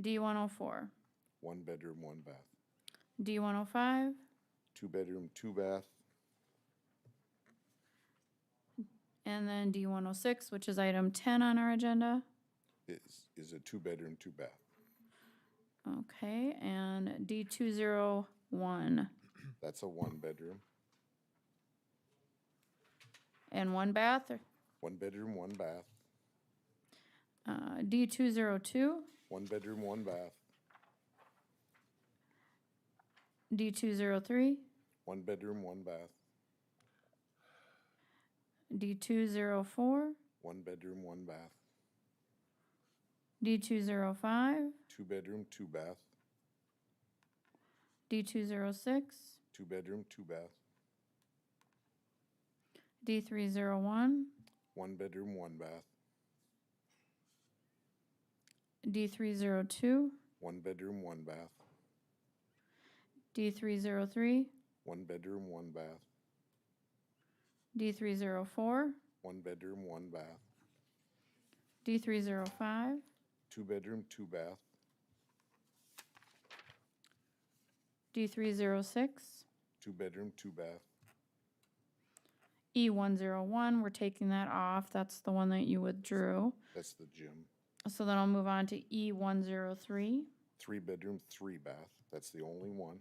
D one oh four, One bedroom, one bath. D one oh five, Two bedroom, two bath, and then D one oh six, which is item ten on our agenda. is, is a two bedroom, two bath. Okay, and D two zero one, That's a one bedroom, and one bath, or, one bedroom, one bath, uh, D two zero two, one bedroom, one bath, D two zero three, one bedroom, one bath, D two zero four, one bedroom, one bath, D two zero five, two bedroom, two bath, D two zero six, two bedroom, two bath, D three zero one, one bedroom, one bath, D three zero two, one bedroom, one bath, D three zero three, one bedroom, one bath, D three zero four, one bedroom, one bath, D three zero five, two bedroom, two bath, D three zero six, two bedroom, two bath, E one zero one, we're taking that off, that's the one that you withdrew. that's the gym. So then I'll move on to E one zero three, Three bedroom, three bath, that's the only one,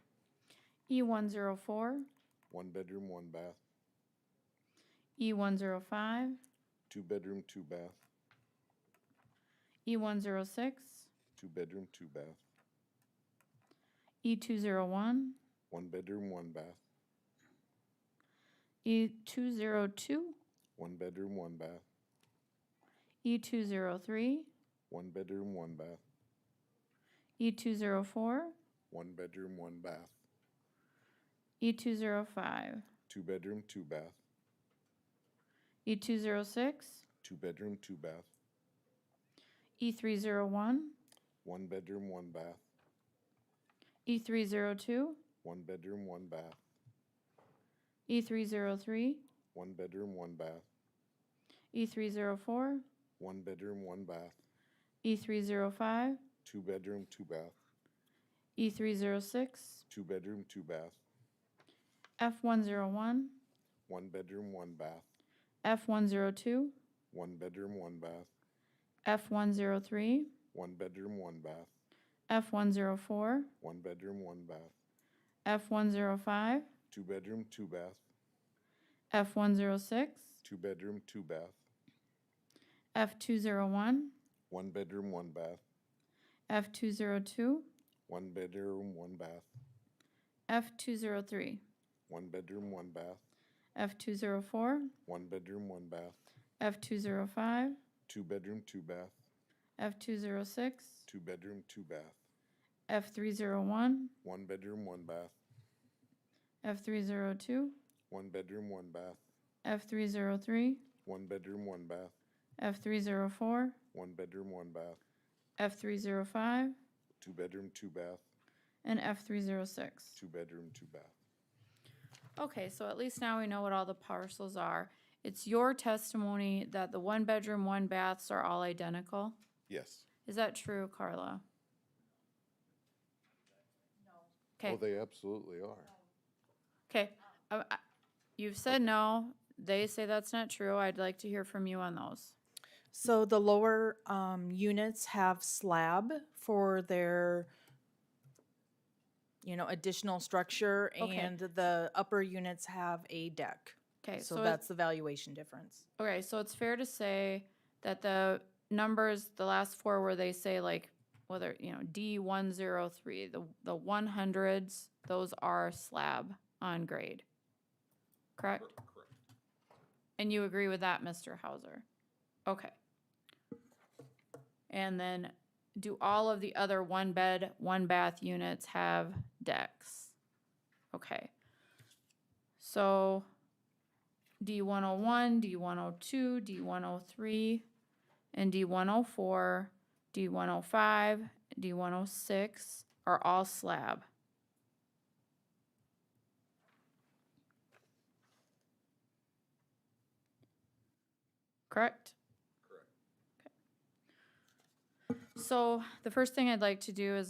E one zero four, one bedroom, one bath, E one zero five, two bedroom, two bath, E one zero six, two bedroom, two bath, E two zero one, one bedroom, one bath, E two zero two, one bedroom, one bath, E two zero three, one bedroom, one bath, E two zero four, one bedroom, one bath, E two zero five, two bedroom, two bath, E two zero six, two bedroom, two bath, E three zero one, one bedroom, one bath, E three zero two, one bedroom, one bath, E three zero three, one bedroom, one bath, E three zero four, one bedroom, one bath, E three zero five, two bedroom, two bath, E three zero six, two bedroom, two bath, F one zero one, one bedroom, one bath, F one zero two, one bedroom, one bath, F one zero three, one bedroom, one bath, F one zero four, one bedroom, one bath, F one zero five, two bedroom, two bath, F one zero six, two bedroom, two bath, F two zero one, one bedroom, one bath, F two zero two, one bedroom, one bath, F two zero three, one bedroom, one bath, F two zero four, one bedroom, one bath, F two zero five, two bedroom, two bath, F two zero six, two bedroom, two bath, F three zero one, one bedroom, one bath, F three zero two, one bedroom, one bath, F three zero three, one bedroom, one bath, F three zero four, one bedroom, one bath, F three zero five, two bedroom, two bath, and F three zero six. two bedroom, two bath. Okay, so at least now we know what all the parcels are. It's your testimony that the one bedroom, one baths are all identical. Yes. Is that true, Carla? Oh, Okay, they absolutely are. okay. Uh, I- You've said no. They say that's not true. I'd like to hear from you on those. So the lower um, units have slab for their, you know, additional structure, Okay. and the upper units have a deck. Okay, So so, it's- that's the valuation difference. okay, so it's fair to say that the numbers, the last four where they say like, whether, you know, D one zero three, the, the one hundreds, those are slab on grade. Correct? And you agree with that, Mr. Hauser? Okay. And then do all of the other one bed, one bath units have decks? Okay. So D one oh one, D one oh two, D one oh three, and D one oh four, D one oh five, D one oh six are all slab. Correct? Correct. So the first thing I'd like to do is